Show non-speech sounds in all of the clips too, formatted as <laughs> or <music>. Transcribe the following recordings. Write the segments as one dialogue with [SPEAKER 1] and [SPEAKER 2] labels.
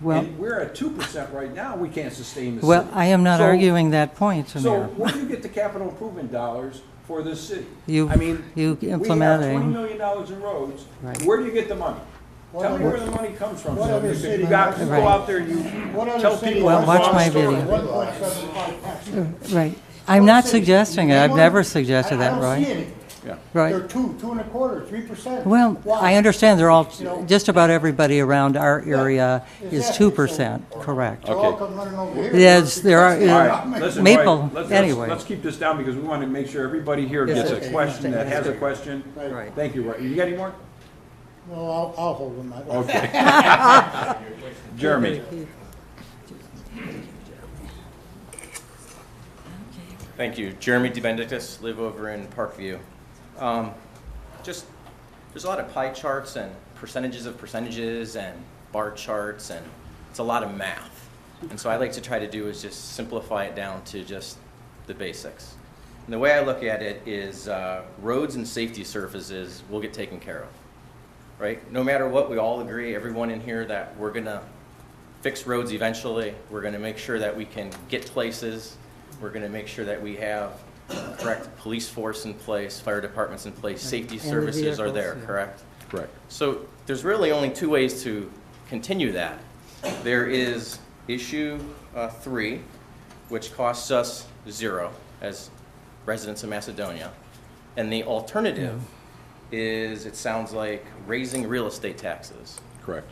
[SPEAKER 1] Well-
[SPEAKER 2] And we're at two percent right now, we can't sustain the city.
[SPEAKER 1] Well, I am not
[SPEAKER 2] So-
[SPEAKER 1] arguing that point,
[SPEAKER 2] So
[SPEAKER 1] Mayor.
[SPEAKER 2] where do you get the capital improvement dollars for this city?
[SPEAKER 1] You-
[SPEAKER 2] I mean,
[SPEAKER 1] you
[SPEAKER 2] We have
[SPEAKER 1] implementing-
[SPEAKER 2] twenty million dollars in roads,
[SPEAKER 1] Right.
[SPEAKER 2] where do you get the money?
[SPEAKER 3] What
[SPEAKER 2] Tell me
[SPEAKER 3] other-
[SPEAKER 2] where the money comes from,
[SPEAKER 3] what
[SPEAKER 2] so
[SPEAKER 3] other
[SPEAKER 2] you can-
[SPEAKER 3] city
[SPEAKER 2] you got,
[SPEAKER 3] has-
[SPEAKER 2] you go
[SPEAKER 1] Right.
[SPEAKER 2] out there and you
[SPEAKER 3] What other
[SPEAKER 2] tell
[SPEAKER 3] city
[SPEAKER 2] people.
[SPEAKER 3] has
[SPEAKER 2] the
[SPEAKER 1] Well, watch
[SPEAKER 2] wrong
[SPEAKER 1] my
[SPEAKER 2] story.
[SPEAKER 1] video.
[SPEAKER 3] One point seven five tax rate?
[SPEAKER 1] Right. I'm not suggesting it. I've never suggested
[SPEAKER 3] I- I
[SPEAKER 1] that,
[SPEAKER 3] don't see
[SPEAKER 1] Roy.
[SPEAKER 3] any.
[SPEAKER 2] Yeah.
[SPEAKER 3] They're
[SPEAKER 1] Right.
[SPEAKER 3] two, two and a quarter, three percent.
[SPEAKER 1] Well, I understand they're all, just about everybody around our area is
[SPEAKER 3] exactly.
[SPEAKER 1] two percent, correct.
[SPEAKER 3] They'll all come running over here.
[SPEAKER 1] Yes, there are-
[SPEAKER 2] All
[SPEAKER 1] Yeah.
[SPEAKER 2] right, listen, Roy,
[SPEAKER 1] Maple,
[SPEAKER 2] let's- let's-
[SPEAKER 1] anyway.
[SPEAKER 2] Let's keep this down because we want to make sure everybody here gets
[SPEAKER 1] Yes,
[SPEAKER 2] a
[SPEAKER 1] okay.
[SPEAKER 2] question that has a question.
[SPEAKER 1] Right.
[SPEAKER 2] Thank you, Roy. You got any more?
[SPEAKER 3] No, I'll, I'll hold them. I-
[SPEAKER 2] Okay. Jeremy,
[SPEAKER 4] Thank you. Jeremy DeBenedictis, live over in Parkview. Um, Just, there's a lot of pie charts and percentages of percentages and bar charts, and it's a lot of math. And so I like to try to do is just simplify it down to just the basics. And the way I look at it is uh, roads and safety surfaces will get taken care of, right? No matter what, we all agree, everyone in here, that we're going to fix roads eventually. We're going to make sure that we can get places. We're going to make sure that we have correct police force in place, fire departments in place, safety
[SPEAKER 1] And the
[SPEAKER 4] services are there,
[SPEAKER 1] vehicles, yeah.
[SPEAKER 4] correct?
[SPEAKER 2] correct.
[SPEAKER 4] So there's really only two ways to continue that. There is issue uh, three, which costs us zero as residents of Macedonia. And the alternative is, it sounds like, raising real estate taxes.
[SPEAKER 2] Correct.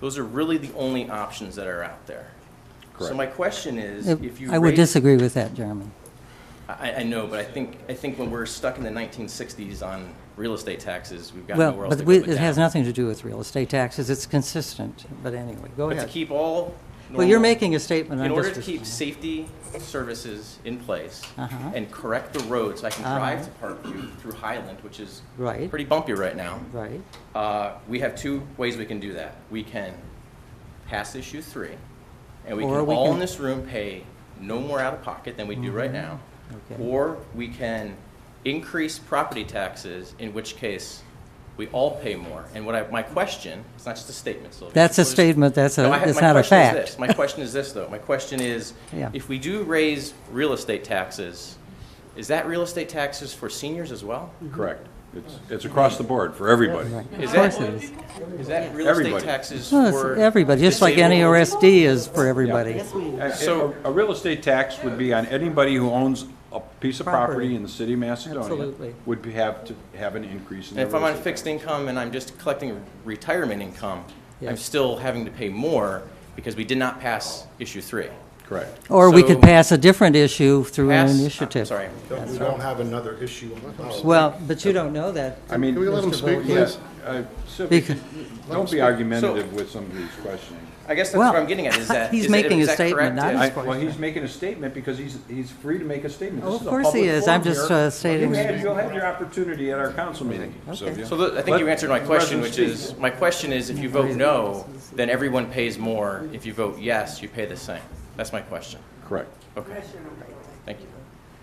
[SPEAKER 4] Those are really the only options that are out there. So
[SPEAKER 2] Correct.
[SPEAKER 4] my question is, if you
[SPEAKER 1] Uh, I would
[SPEAKER 4] raise-
[SPEAKER 1] disagree with that, Jeremy.
[SPEAKER 4] I, I know, but I think, I think when we're stuck in the 1960s on real estate taxes, we've got
[SPEAKER 1] Well,
[SPEAKER 4] nowhere else
[SPEAKER 1] but
[SPEAKER 4] to go
[SPEAKER 1] we-
[SPEAKER 4] but
[SPEAKER 1] it has
[SPEAKER 4] down.
[SPEAKER 1] nothing to do with real estate taxes. It's consistent, but anyway, go
[SPEAKER 4] But to
[SPEAKER 1] ahead.
[SPEAKER 4] keep all.
[SPEAKER 1] Well, you're
[SPEAKER 4] normal-
[SPEAKER 1] making a statement.
[SPEAKER 4] In
[SPEAKER 1] I'm
[SPEAKER 4] order
[SPEAKER 1] just-
[SPEAKER 4] to keep safety services in place
[SPEAKER 1] Uh-huh.
[SPEAKER 4] and correct the roads, I can
[SPEAKER 1] Uh-huh.
[SPEAKER 4] drive to Parkview through Highland, which is
[SPEAKER 1] Right.
[SPEAKER 4] pretty bumpy right now.
[SPEAKER 1] Right,
[SPEAKER 4] Uh, We have two ways we can do that. We can pass issue three, and we
[SPEAKER 1] Or
[SPEAKER 4] can
[SPEAKER 1] we
[SPEAKER 4] all
[SPEAKER 1] can- Mm-hmm.
[SPEAKER 4] in this room pay no more out of pocket than we do right now.
[SPEAKER 1] Okay.
[SPEAKER 4] Or we can increase property taxes, in which case we all pay more. And what I, my question, it's not just a statement, Sylvia.
[SPEAKER 1] That's a
[SPEAKER 4] What is-
[SPEAKER 1] statement, that's a-
[SPEAKER 4] No, I have-
[SPEAKER 1] it's
[SPEAKER 4] my
[SPEAKER 1] not a
[SPEAKER 4] question is
[SPEAKER 1] fact.
[SPEAKER 4] this. My question is this, though. My question is,
[SPEAKER 1] Yeah.
[SPEAKER 4] if we do raise real estate taxes, is that real estate taxes for seniors as well?
[SPEAKER 2] Correct. It's, it's across the board for everybody.
[SPEAKER 1] right. Of
[SPEAKER 4] Is
[SPEAKER 1] course
[SPEAKER 4] that-
[SPEAKER 1] it is.
[SPEAKER 4] Is that real estate
[SPEAKER 2] Everybody.
[SPEAKER 4] taxes
[SPEAKER 1] Well, it's
[SPEAKER 4] for?
[SPEAKER 1] everybody, just like
[SPEAKER 4] disabled?
[SPEAKER 1] NERSD is for everybody.
[SPEAKER 2] So
[SPEAKER 4] So-
[SPEAKER 2] a real estate tax would be on anybody who owns a piece of property in the city of Macedonia
[SPEAKER 1] Absolutely.
[SPEAKER 2] would be- have to have an increase in
[SPEAKER 4] And
[SPEAKER 2] their
[SPEAKER 4] if I'm
[SPEAKER 2] real
[SPEAKER 4] on
[SPEAKER 2] estate.
[SPEAKER 4] fixed income and I'm just collecting retirement income,
[SPEAKER 1] Yeah.
[SPEAKER 4] I'm still having to pay more because we did not pass issue three.
[SPEAKER 2] Correct.
[SPEAKER 1] Or we could
[SPEAKER 4] So-
[SPEAKER 1] pass a different issue through an
[SPEAKER 4] Pass- I'm
[SPEAKER 1] initiative.
[SPEAKER 4] Sorry.
[SPEAKER 5] We don't have another issue. on the ballot.
[SPEAKER 1] Well, but you don't know that.
[SPEAKER 2] I mean.
[SPEAKER 5] Can we let him speak,
[SPEAKER 2] Yeah,
[SPEAKER 5] please?
[SPEAKER 2] uh, Sylvia,
[SPEAKER 1] Because-
[SPEAKER 2] don't be argumentative with some of these questioning.
[SPEAKER 4] I guess that's
[SPEAKER 1] Well,
[SPEAKER 4] what I'm
[SPEAKER 1] <laughs>
[SPEAKER 4] getting at, is that.
[SPEAKER 1] he's
[SPEAKER 4] is that-
[SPEAKER 1] making a
[SPEAKER 4] is that
[SPEAKER 1] statement,
[SPEAKER 4] correct?
[SPEAKER 1] not a
[SPEAKER 2] I-
[SPEAKER 4] Is-
[SPEAKER 1] question.
[SPEAKER 2] Well, he's making a statement because he's, he's free to make a statement.
[SPEAKER 1] Oh,
[SPEAKER 2] This
[SPEAKER 1] of
[SPEAKER 2] is a
[SPEAKER 1] course
[SPEAKER 2] public
[SPEAKER 1] he is.
[SPEAKER 2] forum
[SPEAKER 1] I'm just,
[SPEAKER 2] here.
[SPEAKER 1] uh, stating-
[SPEAKER 2] You had- You'll have your opportunity at our council meeting, Sylvia.
[SPEAKER 4] So the- I think you
[SPEAKER 2] Let
[SPEAKER 4] answered my
[SPEAKER 2] the
[SPEAKER 4] question,
[SPEAKER 2] residents
[SPEAKER 4] which
[SPEAKER 2] speak.
[SPEAKER 4] is, my question is, if you vote no, then everyone pays more. If you vote yes, you pay the same. That's my question.
[SPEAKER 2] Correct.
[SPEAKER 4] Okay. Thank you.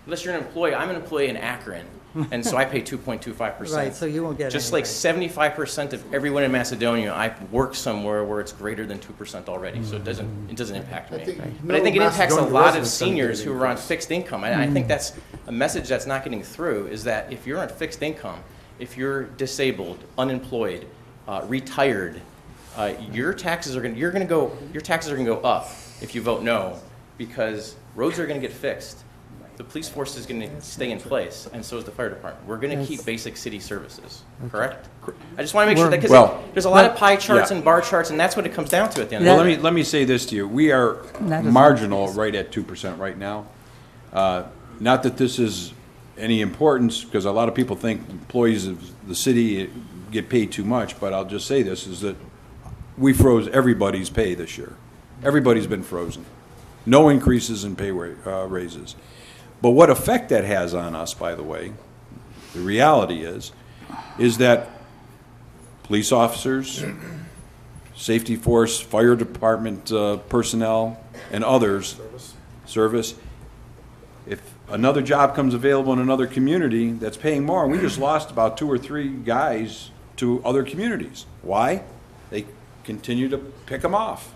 [SPEAKER 4] Unless you're an employee, I'm an employee in Akron, and so I pay 2.25%.
[SPEAKER 1] Right, so you won't get
[SPEAKER 4] Just like
[SPEAKER 1] anything.
[SPEAKER 4] 75% of everyone in Macedonia, I work somewhere where it's greater than 2% already, so it doesn't, it doesn't impact
[SPEAKER 5] I
[SPEAKER 4] me.
[SPEAKER 5] think
[SPEAKER 4] But I think it
[SPEAKER 5] no
[SPEAKER 4] impacts a
[SPEAKER 5] Macedonian
[SPEAKER 4] lot of
[SPEAKER 5] resident's gonna get
[SPEAKER 4] seniors who are on
[SPEAKER 5] anything.
[SPEAKER 4] fixed income. And I think that's a message that's not getting through, is that if you're on fixed income, if you're disabled, unemployed, uh, retired, uh, your taxes are going, to you're going to go, your taxes are going to go up if you vote no, because roads are going to get fixed. The police force is going to stay in place, and so is the fire department. We're going to keep basic city services, correct? I just want to make sure that,
[SPEAKER 2] Well-
[SPEAKER 4] because there's a lot of pie charts
[SPEAKER 2] Yeah.
[SPEAKER 4] and bar charts, and that's what it comes down to at the end of the
[SPEAKER 2] Well,
[SPEAKER 4] day.
[SPEAKER 2] let me, let me say this to you. We are
[SPEAKER 1] Not as
[SPEAKER 2] marginal right at two percent right now. Uh, Not that this is any importance, because a lot of people think employees of the city get paid too much, but I'll just say this, is that we froze everybody's pay this year. Everybody's been frozen. No increases in pay ra- uh, raises. But what effect that has on us, by the way, the reality is, is that police officers, safety force, fire department uh, personnel, and others, service. If another job comes available in another community that's paying more, we just lost about two or three guys to other communities. Why? They continue to pick them off.